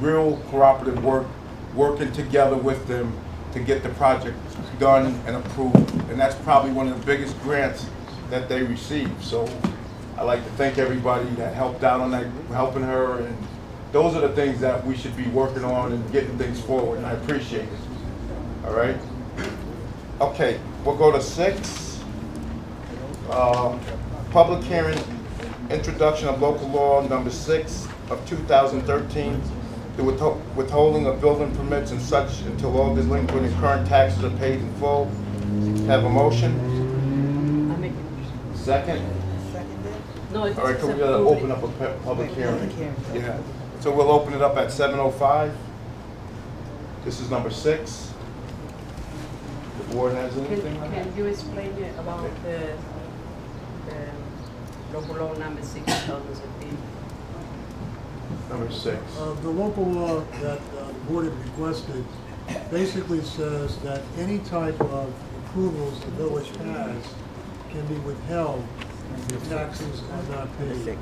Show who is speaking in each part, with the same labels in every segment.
Speaker 1: real cooperative work, working together with them to get the project done and approved. And that's probably one of the biggest grants that they received. So I'd like to thank everybody that helped out on that, helping her. And those are the things that we should be working on and getting things forward, and I appreciate it. All right? Okay, we'll go to six. Um, Public hearing, introduction of local law number six of 2013, the withho- withholding of building permits and such until all delinquent and current taxes are paid in full. Have a motion?
Speaker 2: I make it.
Speaker 1: Second?
Speaker 2: No, it's.
Speaker 1: All right, can we uh, open up a pu- public hearing?
Speaker 2: Public hearing.
Speaker 1: Yeah, so we'll open it up at 7:05. This is number six. The board has
Speaker 2: Can,
Speaker 1: anything on that?
Speaker 2: can you explain it about the, the local law number six thousand fifteen?
Speaker 1: Number six.
Speaker 3: Uh, The local law that uh, the board had requested basically says that any type of approvals the village has can be withheld if taxes are not paid.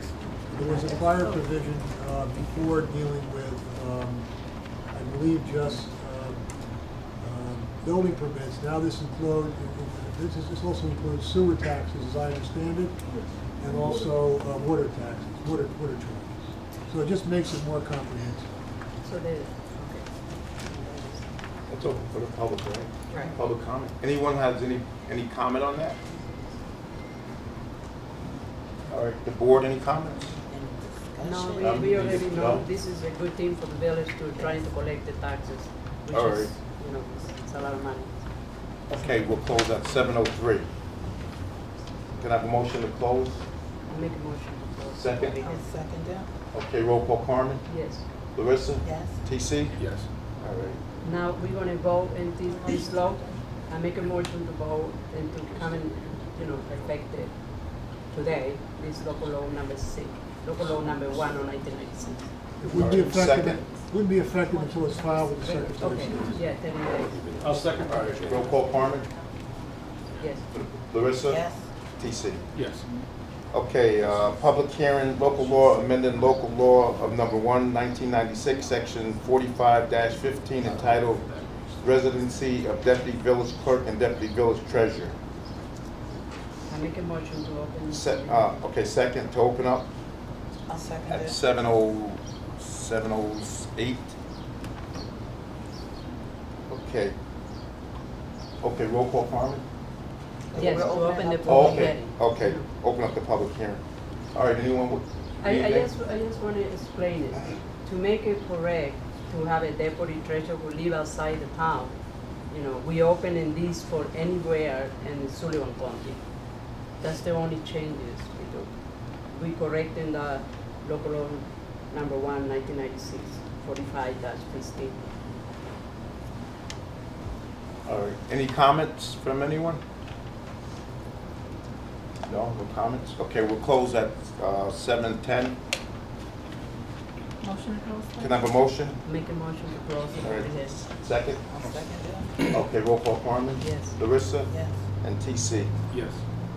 Speaker 3: There was a prior provision uh, before dealing with, um, I believe, just um, um, building permits. Now this includes, this is, this also includes sewer taxes, as I understand it, and also uh, water taxes, water, water charges. So it just makes it more comprehensive.
Speaker 2: So the, okay.
Speaker 1: That's open for the public, right?
Speaker 2: Right.
Speaker 1: Public comment. Anyone has any, any comment on that? All right, the board, any comments?
Speaker 2: No,
Speaker 1: Um,
Speaker 2: we, we already
Speaker 1: is-
Speaker 2: know
Speaker 1: no?
Speaker 2: this is a good thing for the village to try to collect the taxes, which
Speaker 1: All
Speaker 2: is,
Speaker 1: right.
Speaker 2: you know, it's- it's a lot of money.
Speaker 1: Okay, we'll close at seven oh three. Can I have a motion to close?
Speaker 2: I make a motion to close.
Speaker 1: Second.
Speaker 2: Yes.
Speaker 4: second it.
Speaker 1: Okay, roll call Carmen,
Speaker 2: Yes.
Speaker 1: Larissa?
Speaker 4: Yes.
Speaker 1: TC?
Speaker 5: Yes.
Speaker 1: All right.
Speaker 2: Now, we're gonna vote in this, this law. I make a motion to vote and to come and, you know, affect it today, this local law number six, local law number one on nineteen ninety-six.
Speaker 3: It wouldn't be
Speaker 1: All right,
Speaker 3: effective,
Speaker 1: second.
Speaker 3: wouldn't be effective until it's filed with the Secretary of
Speaker 2: Okay,
Speaker 3: State.
Speaker 2: yeah, thirty days,
Speaker 5: I'll second.
Speaker 1: All right, roll call Carmen,
Speaker 2: yes.
Speaker 1: Larissa?
Speaker 4: Yes.
Speaker 1: TC?
Speaker 5: Yes.
Speaker 1: Okay, uh, public hearing, local law, amending local law of number one, nineteen ninety-six, section forty-five fifteen entitled Residency of Deputy Village Clerk and Deputy Village Treasurer.
Speaker 2: I make a motion to open.
Speaker 1: Se- uh, okay, second to open up
Speaker 4: I'll second
Speaker 1: at
Speaker 4: it.
Speaker 1: seven oh, seven oh eight. Okay. Okay, roll call, Carmen?
Speaker 2: Yes, to
Speaker 4: We're
Speaker 2: open
Speaker 4: opening
Speaker 2: the
Speaker 4: up-
Speaker 1: Oh,
Speaker 2: public
Speaker 1: Okay,
Speaker 2: hearing.
Speaker 1: okay, open up the public hearing. All right, anyone with?
Speaker 2: I, I
Speaker 1: anything?
Speaker 2: just, I just wanna explain it. To make it correct, to have a deputy treasurer who live outside the town, you know, we opening this for anywhere in Sullivan County. That's the only changes we do. We correcting the local law number one, nineteen ninety-six, forty-five dash fifteen.
Speaker 1: All right, any comments from anyone? No, no comments? Okay, we'll close at uh, 7:10.
Speaker 4: Motion to close.
Speaker 1: Can I have a motion?
Speaker 2: Make a motion to close the
Speaker 1: All right.
Speaker 2: public hearing.
Speaker 1: Second?
Speaker 4: I'll second it.
Speaker 1: Okay, roll call Carmen?
Speaker 2: Yes.
Speaker 1: Larissa?
Speaker 4: Yes.
Speaker 1: And TC?
Speaker 5: Yes.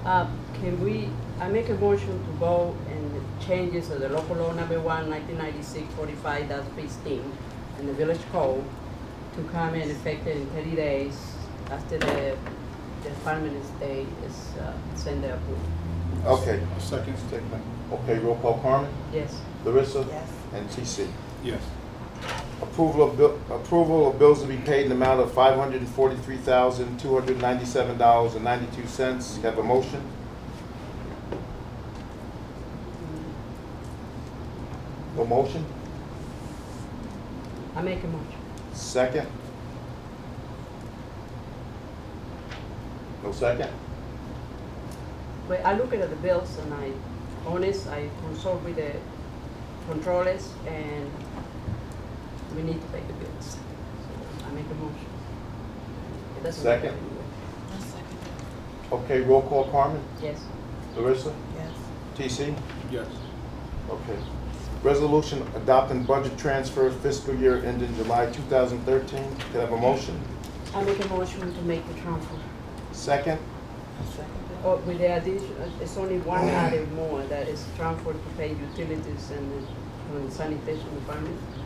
Speaker 2: Uh, Can we, I make a motion to vote and changes of the local law number one, nineteen ninety-six, forty-five, that's fifteen, and the village code to come in effective in thirty days after the, the Department of State is, uh, send their approval.
Speaker 1: Okay.
Speaker 5: I'll second.
Speaker 1: Okay, roll call Carmen?
Speaker 2: Yes,
Speaker 1: Larissa?
Speaker 4: Yes.
Speaker 1: And TC?
Speaker 5: Yes.
Speaker 1: Approval of, bill- approval of bills to be paid in the amount of $543,297.92. Have a motion? No motion?
Speaker 2: I make a motion.
Speaker 1: Second? No second?
Speaker 2: But I look at the bills and I, honest, I consult with the controllers and we need to pay the bills. So I make a motion. It doesn't matter.
Speaker 1: Second.
Speaker 4: I'll second it.
Speaker 1: Okay, roll call Carmen,
Speaker 2: Yes.
Speaker 1: Larissa,
Speaker 4: Yes.
Speaker 1: TC?
Speaker 5: Yes.
Speaker 1: Okay. Resolution adopting budget transfer fiscal year ending July 2013. Can I have a motion?
Speaker 2: I make a motion to make the transfer.
Speaker 1: Second?
Speaker 4: I'll second it.
Speaker 2: Oh, with the addition, uh, it's only one item more, that is transfer to pay utilities and uh, and sanitation department.